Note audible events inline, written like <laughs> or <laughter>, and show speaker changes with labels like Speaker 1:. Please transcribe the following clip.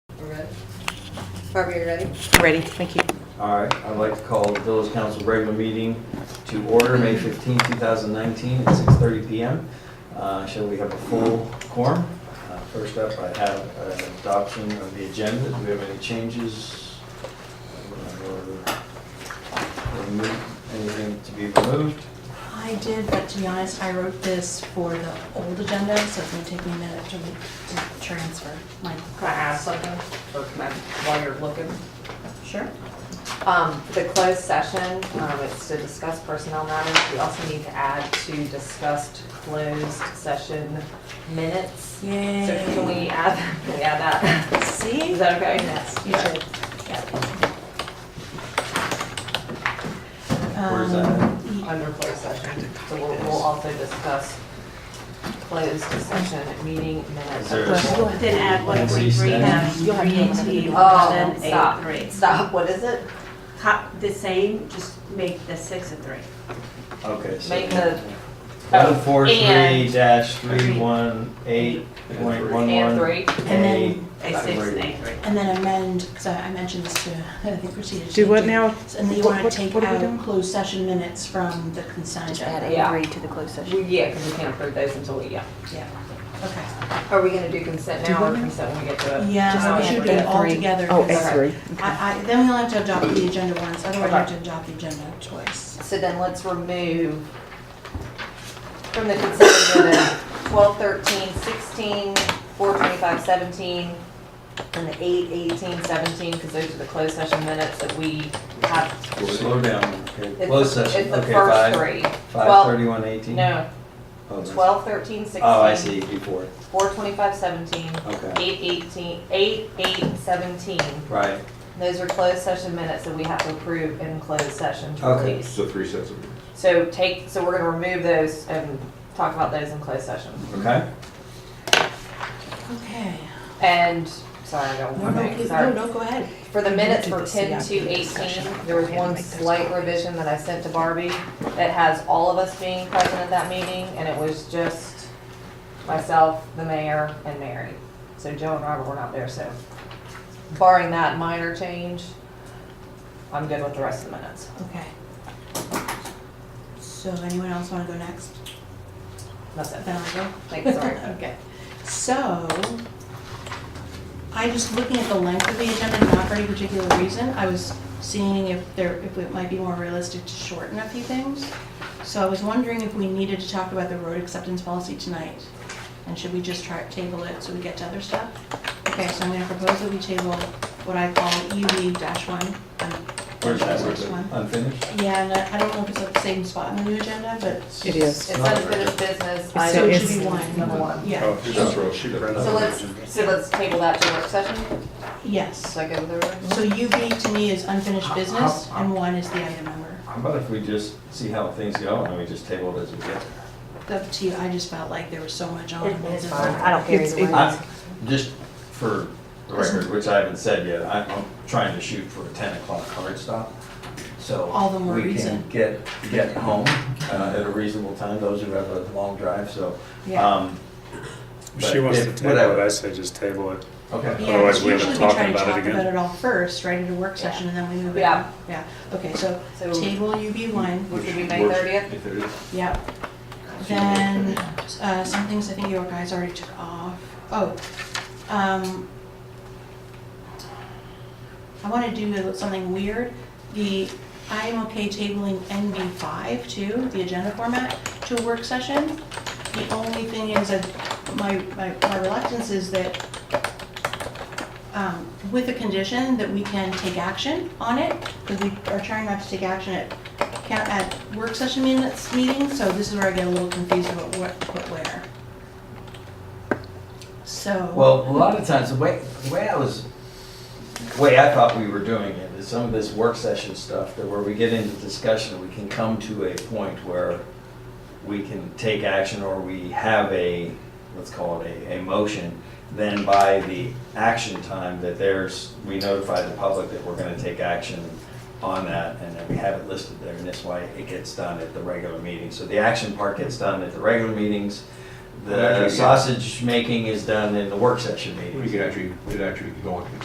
Speaker 1: Barbara, you ready?
Speaker 2: Ready, thank you.
Speaker 3: All right, I'd like to call the village council regular meeting to order, May 15, 2019, at 6:30 PM. Uh, Shall we have a full quorum? Uh, First up, I have uh, adoption of the agenda. Do we have any changes? Or remove- Anything to be removed?
Speaker 4: I did, but to be honest, I wrote this for the old agenda, so it's gonna take me a minute to, to transfer my.
Speaker 1: Can I ask something, or can I, while you're looking?
Speaker 4: Sure.
Speaker 1: Um, for the closed session, um, it's to discuss personnel matters, we also need to add to discussed closed session minutes. So
Speaker 4: Yay.
Speaker 1: can we add, <laughs> can we add that?
Speaker 4: See?
Speaker 1: Is that okay?
Speaker 4: Yes, you did.
Speaker 3: Where is
Speaker 4: Um,
Speaker 3: that?
Speaker 1: Um, Under closed session, so we'll, we'll also discuss closed session meeting
Speaker 3: Is
Speaker 1: minutes.
Speaker 3: there
Speaker 5: You'll
Speaker 3: a-
Speaker 5: have to add what we
Speaker 3: Increase
Speaker 5: read
Speaker 3: that.
Speaker 5: out, three eighteen,
Speaker 1: Oh,
Speaker 5: one,
Speaker 1: stop,
Speaker 5: eight, three.
Speaker 1: stop, what is it?
Speaker 5: Cop, the same, just make the six a three.
Speaker 3: Okay. so-
Speaker 1: Make the- oh,
Speaker 3: 143-318.11.
Speaker 1: And three,
Speaker 4: And then-
Speaker 5: A six and a three.
Speaker 4: And then amend, because I I mentioned this to, I think Christina.
Speaker 2: Do what now?
Speaker 4: And then you
Speaker 2: What-
Speaker 4: wanna
Speaker 2: what-
Speaker 4: take
Speaker 2: what are we doing?
Speaker 4: out closed session minutes from the consent agenda.
Speaker 1: Yeah.
Speaker 6: to the closed session.
Speaker 1: We- yeah, because we can't approve those until we, yeah.
Speaker 4: Yeah, okay.
Speaker 1: Are we gonna do consent now or consent when we get to it?
Speaker 4: Yeah, we
Speaker 1: Uh, Just
Speaker 4: should
Speaker 1: A
Speaker 4: do it all
Speaker 2: three.
Speaker 4: together.
Speaker 2: Oh,
Speaker 4: because
Speaker 2: A three.
Speaker 4: I, I, then we only have to adopt the agenda once, otherwise we have to adopt the agenda twice.
Speaker 1: So then let's remove from the consent agenda, 12, 13, 16, 4, 25, 17, and the 8, 18, 17, because those are the closed session minutes that we have.
Speaker 3: Slow down. Okay,
Speaker 1: It's
Speaker 3: Closed
Speaker 1: the-
Speaker 3: session,
Speaker 1: It's the
Speaker 3: okay,
Speaker 1: first
Speaker 3: five,
Speaker 1: three.
Speaker 3: five thirty-one eighteen?
Speaker 1: No,
Speaker 3: Oh, that's-
Speaker 1: 12, 13,
Speaker 3: Oh, I
Speaker 1: 16,
Speaker 3: see, before,
Speaker 1: 4, 25, 17,
Speaker 3: okay,
Speaker 1: 8, 18, 8, 8, 17.
Speaker 3: right.
Speaker 1: Those are closed session minutes that we have to approve in closed session to
Speaker 3: Okay.
Speaker 1: release.
Speaker 7: So three sets of minutes.
Speaker 1: So take, so we're gonna remove those and talk about those in closed session.
Speaker 3: Okay,
Speaker 4: Okay.
Speaker 1: And, sorry, I got
Speaker 4: No,
Speaker 1: one more
Speaker 4: no,
Speaker 1: thing,
Speaker 4: please, no,
Speaker 1: sorry.
Speaker 4: no, go ahead.
Speaker 1: For the minutes for
Speaker 4: The
Speaker 1: ten to
Speaker 4: CIP
Speaker 1: eighteen,
Speaker 4: discussion.
Speaker 1: there was one slight revision that I sent to Barbie that has all of us being present at that meeting, and it was just myself, the mayor, and Mary. So Joe and Robert were not there, so barring that minor change, I'm good with the rest of the minutes.
Speaker 4: Okay. So anyone else wanna go next?
Speaker 1: That's it.
Speaker 4: Then I'll go.
Speaker 1: Thanks, sorry.
Speaker 4: <laughs> Okay. So, I just looking at the length of the agenda, not for any particular reason, I was seeing if there, if it might be more realistic to shorten a few things. So I was wondering if we needed to talk about the road acceptance policy tonight, and should we just try, table it so we get to other stuff? Okay, so I'm gonna propose that we table what I call EV dash one.
Speaker 3: where's that, where's
Speaker 4: One.
Speaker 3: unfinished?
Speaker 4: Yeah, and I I don't know if it's at the same spot on the new agenda, but.
Speaker 2: It
Speaker 1: It's
Speaker 2: is.
Speaker 1: unfinished business, I,
Speaker 4: So
Speaker 2: So
Speaker 4: it
Speaker 2: it's-
Speaker 4: should be one.
Speaker 1: number one.
Speaker 4: Yeah,
Speaker 7: Oh, that's right, she did.
Speaker 1: So let's, so let's table that to work session,
Speaker 4: yes.
Speaker 1: so I go with her.
Speaker 4: So UB to me is unfinished business, and one is the item number.
Speaker 3: How about if we just see how things go and we just table it as we get there?
Speaker 4: Up to you, I just felt like there was so much on.
Speaker 6: It's fine, I don't care
Speaker 2: It's-
Speaker 6: either way.
Speaker 3: I'm, just for the record, which I haven't said yet, I'm, I'm trying to shoot for a ten o'clock hard stop. So.
Speaker 4: All the more
Speaker 3: We
Speaker 4: reason.
Speaker 3: can get, get home, uh, at a reasonable time, those who have a long drive, so,
Speaker 4: Yeah.
Speaker 8: Uh,
Speaker 3: um.
Speaker 8: She
Speaker 3: but
Speaker 8: wants to
Speaker 3: if-
Speaker 8: table
Speaker 3: whatever.
Speaker 8: it, I say just table it.
Speaker 3: Okay,
Speaker 4: Yeah,
Speaker 8: Otherwise,
Speaker 4: because
Speaker 8: we end up
Speaker 4: usually we try
Speaker 8: talking
Speaker 4: to
Speaker 8: about it
Speaker 4: talk
Speaker 8: again.
Speaker 4: about it all first, right, at a work session, and then we move it.
Speaker 1: Yeah.
Speaker 4: Yeah, okay, so
Speaker 1: So-
Speaker 4: table UB one,
Speaker 1: Which would be May thirtieth?
Speaker 4: yep. Then, uh, some things I think your guys already took off. Oh, um, I want to do something weird. The, I am okay tabling NB five too, the agenda format, to a work session. The only thing is that my, my my reluctance is that, um, with the condition that we can take action on it, because we are trying not to take action at, ca- at work session minutes meetings, so this is where I get a little confused about what, what where. So.
Speaker 3: Well, a lot of times, the way, the way I was, the way I thought we were doing it is some of this work session stuff that where we get into discussion, we can come to a point where we can take action or we have a, let's call it a, a motion. Then by the action time that there's, we notify the public that we're gonna take action on that and then we have it listed there and that's why it gets done at the regular meeting. So the action part gets done at the regular meetings.
Speaker 7: Well,
Speaker 3: The
Speaker 7: actually, yeah.
Speaker 3: sausage making is done in the work session
Speaker 7: We
Speaker 3: meetings.
Speaker 7: could actually, we'd actually go into